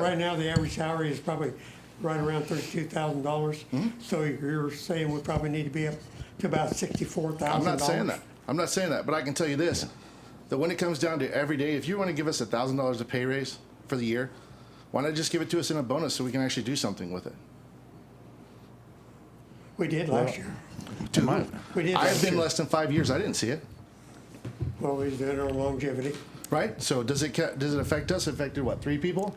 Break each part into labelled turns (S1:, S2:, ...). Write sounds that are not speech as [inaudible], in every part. S1: Right now, the average salary is probably right around thirty-two thousand dollars.
S2: Hmm?
S1: So you're saying we probably need to be up to about sixty-four
S2: I'm
S1: thousand
S2: not
S1: dollars?
S2: saying that. I'm not saying that, but I can tell you this: that when it comes down to every day, if you want to give us a thousand dollars a pay raise for the year, why not just give it to us in a bonus so we can actually do something with it?
S1: We did last year.
S2: Dude,
S1: We did
S2: I've
S1: last
S2: been
S1: year.
S2: less than five years. I didn't see it.
S1: Well, we did our longevity.
S2: Right? So does it ca- does it affect us? Affected what? Three people?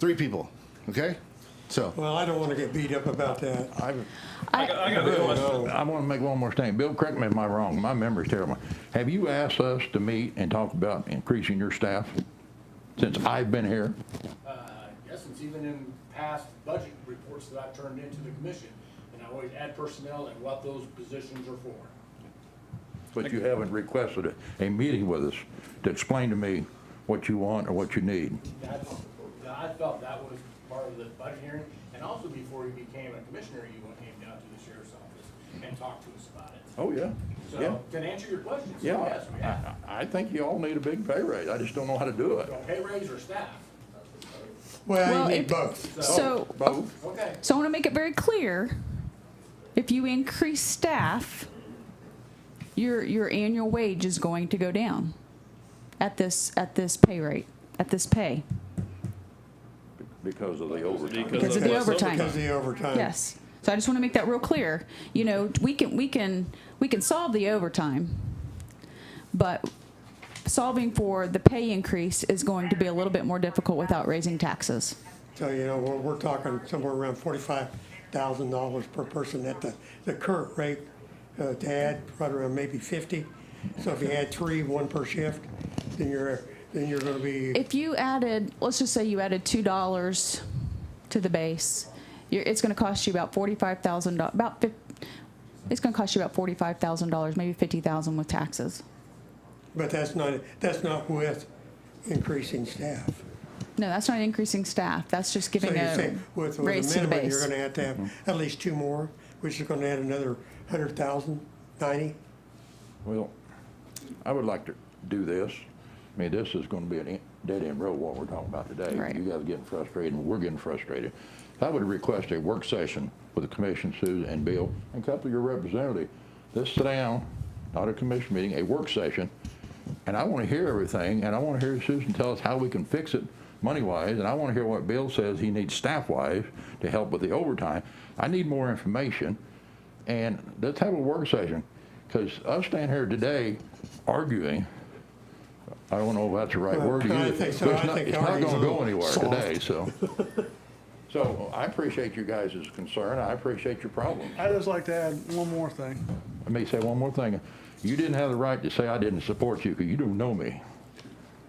S2: Three people. Okay. So
S1: Well, I don't want to get beat up about that.
S3: I,
S4: I got, I got a question.
S3: I want to make one more statement. Bill, correct me if I'm wrong. My memory's terrible. Have you asked us to meet and talk about increasing your staff since I've been here?
S5: Uh, Yes, it's even in past budget reports that I've turned into the commission, and I always add personnel and what those positions are for.
S3: But you haven't requested a, a meeting with us to explain to me what you want or what you need.
S5: That's, I felt that was part of the budget hearing, and also before you became a commissioner, you went- came down to the sheriff's office and talked to us about it.
S3: Oh, yeah. Yeah.
S5: So, to answer your question, so
S3: Yeah.
S5: yes, we have.
S3: I- I, I think you all need a big pay raise. I just don't know how to do it.
S5: So pay raise or staff?
S1: Well,
S4: Well,
S1: you
S4: it-
S1: need both.
S4: So,
S3: Both?
S5: Okay,
S4: so I want to make it very clear. If you increase staff, your, your annual wage is going to go down at this, at this pay rate, at this pay.
S3: Because of the overtime.
S4: Because of the overtime.
S1: Because of the overtime.
S4: Yes. So I just want to make that real clear. You know, we can, we can, we can solve the overtime, but solving for the pay increase is going to be a little bit more difficult without raising taxes.
S1: So, you know, we're, we're talking somewhere around forty-five thousand dollars per person at the, the current rate, uh, to add, right around maybe fifty. So if you add three, one per shift, then you're, then you're gonna be,
S4: If you added, let's just say you added two dollars to the base, you're, it's gonna cost you about forty-five thousand, about fif- it's gonna cost you about forty-five thousand dollars, maybe fifty thousand with taxes.
S1: but that's not, that's not with increasing staff.
S4: No, that's not increasing staff, that's just
S1: So
S4: giving
S1: you're
S4: a
S1: saying with,
S4: raise
S1: with
S4: to
S1: a
S4: the
S1: minimum, you're
S4: base.
S1: gonna have to have
S3: Mm-hmm.
S1: at least two more, which is gonna add another hundred thousand, ninety?
S3: Well, I would like to do this. I mean, this is gonna be a dead end road what we're talking about today.
S4: Right.
S3: You guys are getting frustrated, and we're getting frustrated. I would request a work session with the commission, Sue and Bill, and a couple of your representatives. Let's sit down, not a commission meeting, a work session, and I wanna hear everything, and I wanna hear Susan tell us how we can fix it money-wise, and I wanna hear what Bill says he needs staff-wise to help with the overtime. I need more information, and let's have a work session, because us standing here today arguing, I don't know if that's the right
S1: Well,
S3: word to
S1: I
S3: use.
S1: think so.
S3: but it's
S1: I
S3: not-
S1: think
S3: It's not
S1: arguing's a
S3: gonna go
S1: little
S3: anywhere
S1: soft.
S3: today, so. [laughs] So I appreciate you guys' concern, I appreciate your problems.
S6: I'd just like to add one more thing.
S3: Let me say one more thing. You didn't have the right to say I didn't support you, because you don't know me.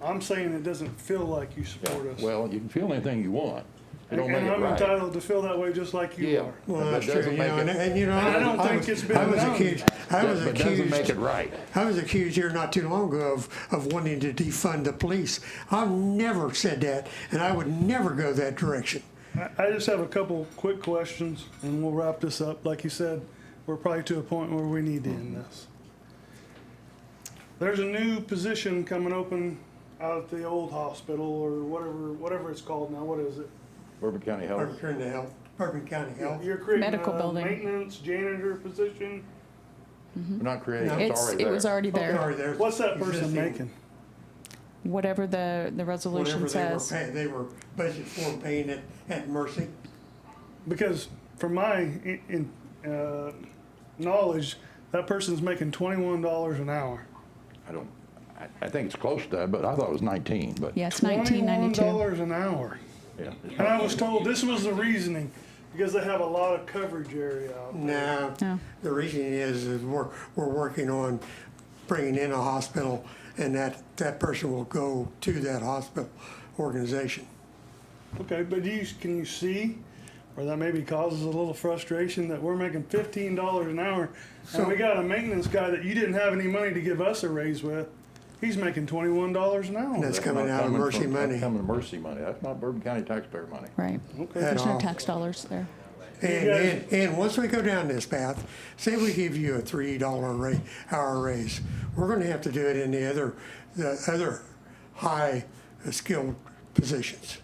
S6: I'm saying it doesn't feel like you support us.
S3: Well, you can feel anything you want. It don't make
S6: And
S3: it
S6: I'm
S3: right.
S6: entitled to feel that way just like you
S3: Yeah.
S6: are.
S1: Well,
S3: That
S1: that's true,
S3: doesn't
S1: you
S3: make
S1: know,
S3: it-
S1: and, and you know.
S6: And I don't think
S1: was-
S6: it's been
S1: I was
S6: done.
S1: accused, I was
S3: But doesn't make
S1: accused,
S3: it right.
S1: I was accused here not too long ago of, of wanting to defund the police. I've never said that, and I would never go that direction.
S6: I- I just have a couple quick questions and we'll wrap this up. Like you said, we're probably to a point where we need to end
S3: Mm-hmm.
S6: this. There's a new position coming open out at the old hospital or whatever, whatever it's called now. What is it?
S3: Bourbon County Health.
S1: Bourbon County Health, Bourbon County Health.
S6: You're creating
S4: Medical
S6: a
S4: building.
S6: maintenance janitor position.
S3: We're not creating, it's
S4: It's,
S3: already
S4: it
S3: there.
S4: was already there,
S1: Sorry, there's
S6: What's that person
S1: existing-
S6: making?
S4: whatever the, the
S1: Whatever
S4: resolution
S1: they were
S4: says.
S1: paying, they were budgeted for paying at, at Mercy.
S6: Because from my i- in, uh, knowledge, that person's making twenty-one dollars an hour.
S3: I don't, I, I think it's close to that, but I thought it was 19, but.
S4: Yeah, it's nineteen ninety-two.
S6: Twenty-one dollars an hour.
S3: Yeah.
S6: And I was told this was the reasoning, because they have a lot of coverage area out
S4: Mm.
S6: there.
S1: Now,
S4: No.
S1: the reason is, is we're, we're working on bringing in a hospital, and that, that person will go to that hospital organization.
S6: Okay, but do you, can you see where that maybe causes a little frustration that we're making fifteen dollars an hour? And we got a maintenance guy that you didn't have any money to give us a raise with, he's making twenty-one dollars an hour.
S1: That's coming
S3: not
S1: out of
S3: coming
S1: Mercy
S3: from- that's
S1: money.
S3: Coming to Mercy money. That's not Bourbon County taxpayer money.
S4: Right.
S1: At
S4: There's no
S1: all.
S4: tax dollars there.
S1: And,
S6: You guys-
S1: and, and once we go down this path, say we give you a three dollar rate, hour raise, we're gonna have to do it in the other, the other high skilled positions.